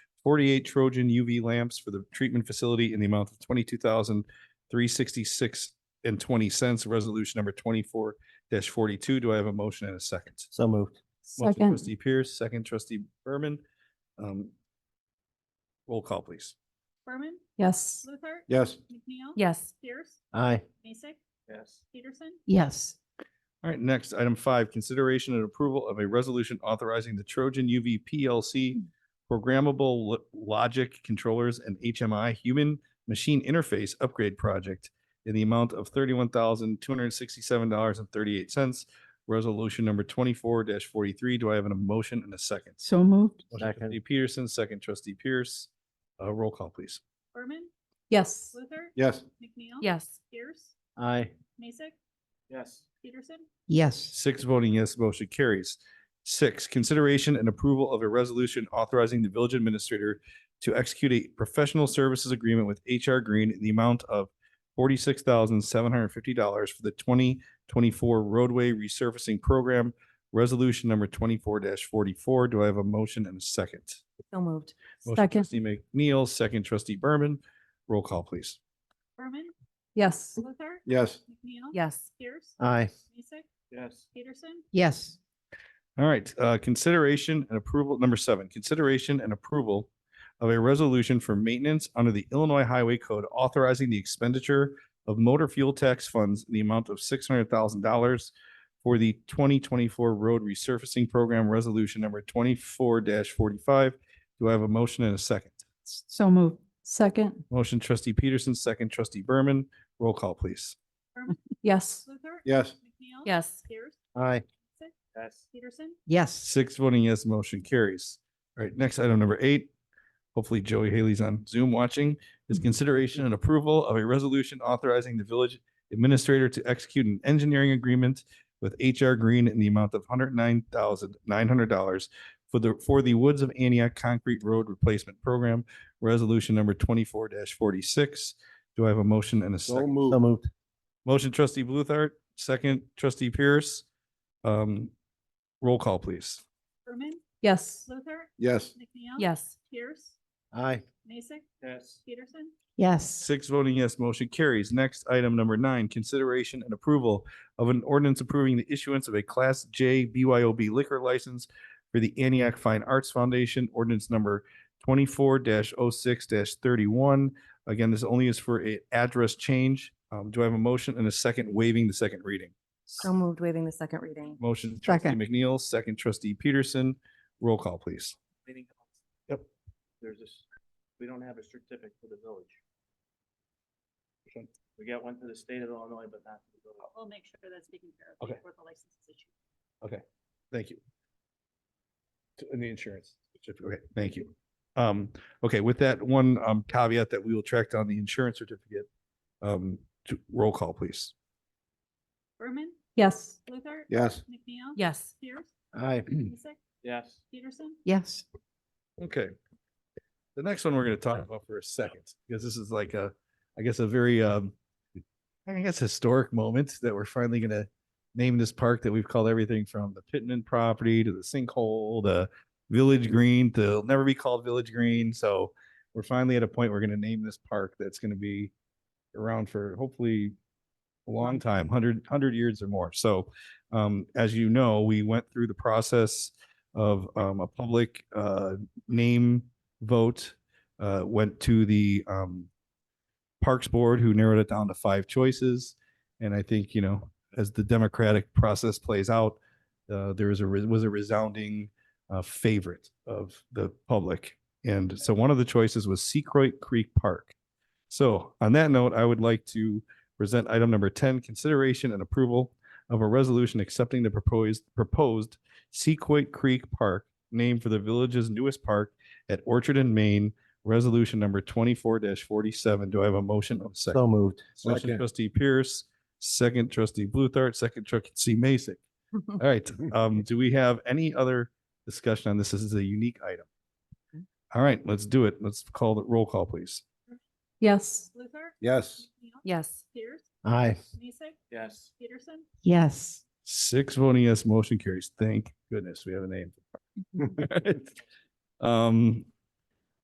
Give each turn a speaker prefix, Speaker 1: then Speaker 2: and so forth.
Speaker 1: forty-eight Trojan UV lamps for the treatment facility in the amount of twenty-two thousand three sixty-six and twenty cents, resolution number twenty-four forty-two. Do I have a motion and a second?
Speaker 2: So moved.
Speaker 1: Motion
Speaker 3: Second,
Speaker 1: Trustee Pierce, second trustee Berman. Um, Roll call, please.
Speaker 4: Berman,
Speaker 3: yes.
Speaker 4: Luther.
Speaker 2: Yes.
Speaker 4: McNeil.
Speaker 3: Yes.
Speaker 4: Pierce,
Speaker 2: Aye.
Speaker 4: Mason,
Speaker 1: Yes.
Speaker 4: Peterson,
Speaker 3: Yes.
Speaker 1: All right, next, item five, consideration and approval of a resolution authorizing the Trojan UV PLC programmable Lo- logic controllers and HMI human machine interface upgrade project in the amount of thirty-one thousand, two hundred and sixty-seven dollars and thirty-eight cents. Resolution number twenty-four forty-three. Do I have an emotion and a second?
Speaker 3: So moved.
Speaker 1: Motion
Speaker 2: Second.
Speaker 1: Trustee Peterson, second trustee Pierce. Uh, roll call, please.
Speaker 4: Berman,
Speaker 3: Yes.
Speaker 4: Luther.
Speaker 2: Yes.
Speaker 4: McNeil.
Speaker 3: Yes.
Speaker 4: Pierce,
Speaker 2: Aye.
Speaker 4: Mason,
Speaker 2: Yes.
Speaker 4: Peterson,
Speaker 3: Yes.
Speaker 1: Six voting yes, motion carries. Six, consideration and approval of a resolution authorizing the village administrator to execute a professional services agreement with HR Green in the amount of forty-six thousand seven hundred and fifty dollars for the twenty twenty-four roadway resurfacing program, resolution number twenty-four forty-four. Do I have a motion and a second?
Speaker 3: So moved.
Speaker 1: Motion
Speaker 3: Second,
Speaker 1: Trustee McNeil, second trustee Berman. Roll call, please.
Speaker 4: Berman,
Speaker 3: yes.
Speaker 4: Luther.
Speaker 2: Yes. Uh.
Speaker 4: McNeil.
Speaker 3: Yes.
Speaker 4: Pierce,
Speaker 2: Aye.
Speaker 4: Mason,
Speaker 2: Yes.
Speaker 4: Peterson,
Speaker 3: Yes.
Speaker 1: All right, uh, consideration and approval, number seven, consideration and approval of a resolution for maintenance under the Illinois Highway Code authorizing the expenditure of motor fuel tax funds in the amount of six hundred thousand dollars for the twenty twenty-four road resurfacing program resolution number twenty-four forty-five. Do I have a motion and a second?
Speaker 3: So moved. Second,
Speaker 1: Motion trustee Peterson, second trustee Berman. Roll call, please.
Speaker 3: yes.
Speaker 4: Luther.
Speaker 2: Yes.
Speaker 4: McNeil.
Speaker 3: Yes.
Speaker 4: Pierce,
Speaker 2: Aye.
Speaker 4: Mason,
Speaker 2: Yes.
Speaker 4: Peterson,
Speaker 3: Yes.
Speaker 1: Six voting yes, motion carries. All right, next item number eight. Hopefully Joey Haley's on Zoom watching is consideration and approval of a resolution authorizing the village administrator to execute an engineering agreement with HR Green in the amount of hundred nine thousand nine hundred dollars for the, for the Woods of Antioch Concrete Road Replacement Program, resolution number twenty-four forty-six. Do I have a motion and a second?
Speaker 2: So moved.
Speaker 1: Motion trustee Bluthart, second trustee Pierce. Um, roll call, please.
Speaker 4: Berman,
Speaker 3: Yes.
Speaker 4: Luther.
Speaker 2: Yes.
Speaker 4: McNeil.
Speaker 3: Yes.
Speaker 4: Pierce,
Speaker 2: Aye.
Speaker 4: Mason,
Speaker 2: Yes.
Speaker 4: Peterson,
Speaker 3: Yes.
Speaker 1: Six voting yes, motion carries. Next, item number nine, consideration and approval of an ordinance approving the issuance of a Class J BYOB liquor license for the Antioch Fine Arts Foundation, ordinance number twenty-four 6 thirty-one. Again, this only is for a address change. Um, do I have a motion and a second waiving the second reading?
Speaker 3: So moved, waiving the second reading.
Speaker 1: Motion trustee
Speaker 3: Second.
Speaker 1: McNeil, second trustee Peterson. Roll call, please. Yep.
Speaker 5: There's this, we don't have a certificate for the village. We got one for the state of Illinois, but not for the village.
Speaker 4: we'll make sure that's taken care of
Speaker 1: Okay.
Speaker 4: before the license is issued.
Speaker 1: Thank you. To- And the insurance. certificate. Okay, thank you. Um, okay, with that one um caveat that we will track down the insurance certificate. Um, to roll call, please.
Speaker 4: Berman,
Speaker 3: Yes.
Speaker 4: Luther.
Speaker 2: Yes.
Speaker 4: McNeil.
Speaker 3: Yes.
Speaker 4: Pierce,
Speaker 2: Aye.
Speaker 4: Mason,
Speaker 5: Yes,
Speaker 4: Peterson,
Speaker 3: Yes.
Speaker 1: Okay. The next one we're gonna talk about for a second, because this is like a, I guess, a very um. I guess historic moment that we're finally gonna name this park that we've called everything from the Pittman property to the sinkhole, the. Village Green to it'll never be called Village Green, so we're finally at a point, we're gonna name this park that's gonna be. Around for hopefully a long time, hundred, hundred years or more, so um, as you know, we went through the process. Of um, a public uh name vote uh, went to the um, Parks Board, who narrowed it down to five choices. And I think, you know, as the democratic process plays out, uh, there is a re- was a resounding uh, favorite of the public. And so one of the choices was Secroy Creek Park. So on that note, I would like to present item number 10, consideration and approval of a resolution accepting the proposed proposed Sequoia Creek Park name for the village's newest park at Orchard and Main, resolution number twenty-four forty-seven. Do I have a motion of
Speaker 2: So
Speaker 1: second?
Speaker 2: moved.
Speaker 1: Motion trustee Pierce, second trustee Bluthart, second trustee Mason. All right, um, do we have any other discussion on this? This is a unique item. All right, let's do it. Let's call the roll call, please.
Speaker 3: Yes.
Speaker 4: Luther.
Speaker 2: Yes.
Speaker 4: McNeil,
Speaker 3: Yes.
Speaker 4: Pierce,
Speaker 2: Aye.
Speaker 4: Mason,
Speaker 5: yes,
Speaker 4: Peterson,
Speaker 3: Yes.
Speaker 1: Six voting yes, motion carries. Thank goodness we have a name. All right. Um,